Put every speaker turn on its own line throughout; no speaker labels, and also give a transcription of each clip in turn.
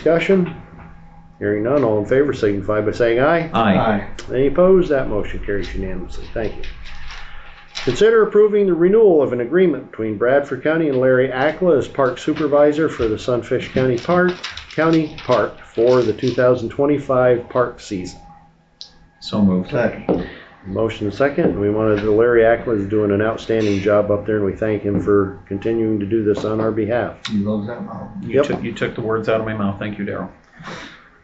Discussion? Hearing none, all in favor signify by saying aye.
Aye.
Any opposed? That motion carries unanimously. Thank you. Consider approving the renewal of an agreement between Bradford County and Larry Akla as park supervisor for the Sunfish County Park, County Park for the 2025 park season.
So moved.
Second.
Motion second. We wanted to, Larry Akla is doing an outstanding job up there and we thank him for continuing to do this on our behalf.
He loves that mountain.
You
Yep.
took, you took the words out of my mouth. Thank you, Daryl.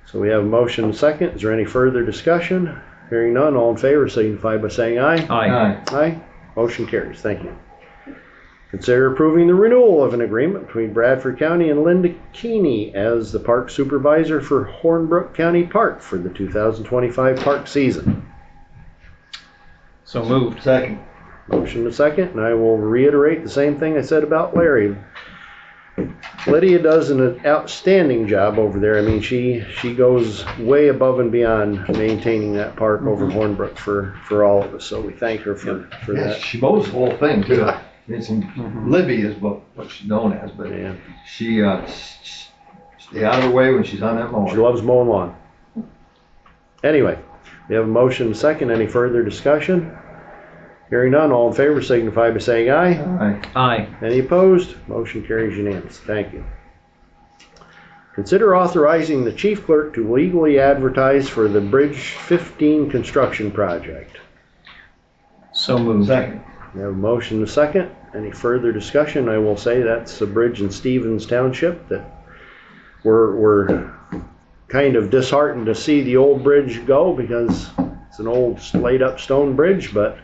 So we have a motion and a second. Is there any further discussion? Hearing none, all in favor signify by saying aye.
Aye.
Aye. Motion carries. Thank you. Consider approving the renewal of an agreement between Bradford County and Linda Keeney as the park supervisor for Hornbrook County Park for the 2025 park season.
So moved.
Second.
Motion to second, and I will reiterate the same thing I said about Larry. Lydia does an outstanding job over there. I mean, she, she goes way above and beyond maintaining that park over Hornbrook for, for all of us. So we thank her for, for
Yes,
that.
she mows the whole thing too.
Yeah.
It's,
Mm-hmm.
in- Libby is what, what she's known as, but
Yeah.
she, uh, s- s- stay out of her way when she's on that
She
mower.
loves mowing lawn. Anyway, we have a motion and a second. Any further discussion? Hearing none, all in favor signify by saying aye.
Aye.
Aye.
Any opposed? Motion carries unanimous. Thank you. Consider authorizing the chief clerk to legally advertise for the Bridge 15 construction project.
So moved.
Second.
We have a motion and a second. Any further discussion? I will say that's the bridge in Stevens Township that we're, we're kind of disheartened to see the old bridge go because it's an old laid up stone bridge, but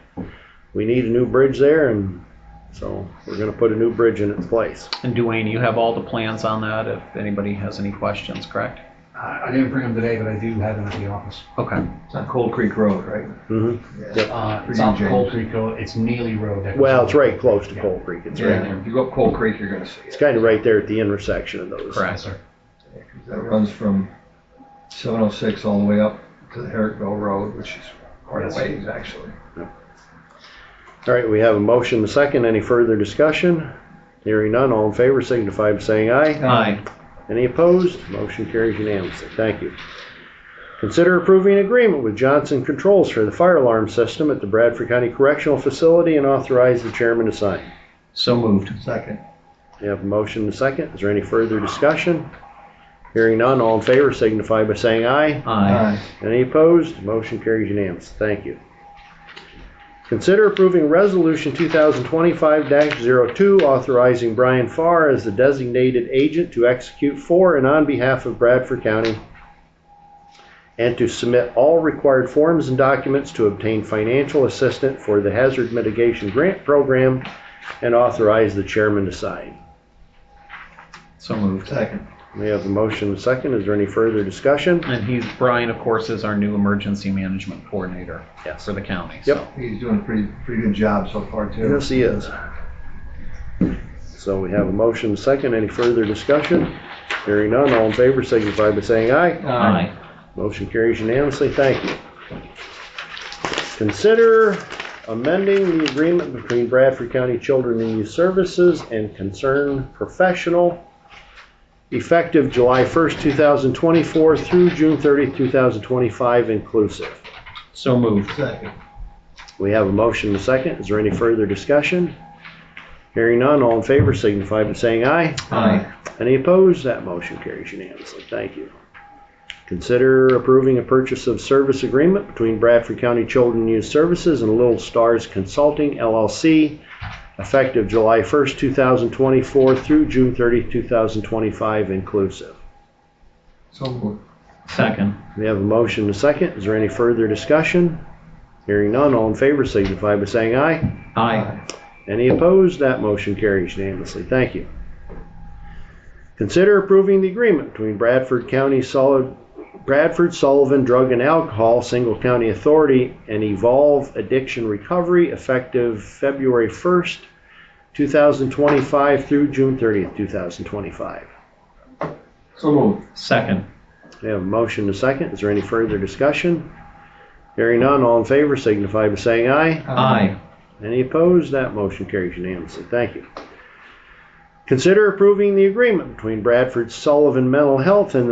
we need a new bridge there and so we're gonna put a new bridge in its place.
And Duane, you have all the plans on that if anybody has any questions, correct?
I I didn't bring them today, but I do have them at the office.
Okay.
It's on Cold Creek Road, right?
hmm
Yeah.
Uh, It's on
Pretty
Cold
James.
Creek Road, it's Neely Road. Uh, that goes
Well,
on.
it's right close to Cold Creek. It's right,
Yeah, if you go up Cold Creek, you're gonna see
it's
it.
kind of right there at the intersection of those.
Yes,
Correct.
sir.
That runs from seven oh six all the way up to the Herrickville Road, which is quite a
Yes.
ways actually.
All right, we have a motion and a second. Any further discussion? Hearing none, all in favor signify by saying aye.
Aye.
Any opposed? Motion carries unanimously. Thank you. Consider approving an agreement with Johnson Controls for the fire alarm system at the Bradford County Correctional Facility and authorize the chairman to sign.
So moved.
Second.
We have a motion and a second. Is there any further discussion? Hearing none, all in favor signify by saying aye.
Aye.
Any opposed? Motion carries unanimous. Thank you. Consider approving Resolution 2025-02, authorizing Brian Farr as the designated agent to execute for and on behalf of Bradford County and to submit all required forms and documents to obtain financial assistance for the Hazard Mitigation Grant Program and authorize the chairman to sign.
So moved.
Second.
We have a motion and a second. Is there any further discussion?
And he's, Brian, of course, is our new emergency management coordinator
Yes.
for the county.
Yep.
so.
He's doing a pretty, pretty good job so far too.
Yes, he is. So we have a motion second. Any further discussion? Hearing none, all in favor signify by saying aye.
Aye.
Motion carries unanimously. Thank you. Consider amending the agreement between Bradford County Children and Youth Services and Concern Professional effective July 1st, 2024 through June 30th, 2025 inclusive.
So moved.
Second.
We have a motion and a second. Is there any further discussion? Hearing none, all in favor signify by saying aye.
Aye.
Any opposed? That motion carries unanimously. Thank you. Consider approving a purchase of service agreement between Bradford County Children and Youth Services and Little Stars Consulting LLC effective July 1st, 2024 through June 30th, 2025 inclusive.
So moved.
Second.
We have a motion and a second. Is there any further discussion? Hearing none, all in favor signify by saying aye.
Aye.
Any opposed? That motion carries unanimously. Thank you. Consider approving the agreement between Bradford County Solid, Bradford Sullivan Drug and Alcohol Single County Authority and Evolve Addiction Recovery effective February 1st, 2025 through June 30th, 2025.
So moved.
Second.
We have a motion to second. Is there any further discussion? Hearing none, all in favor signify by saying aye.
Aye.
Any opposed? That motion carries unanimously. Thank you. Consider approving the agreement between Bradford Sullivan Mental Health and the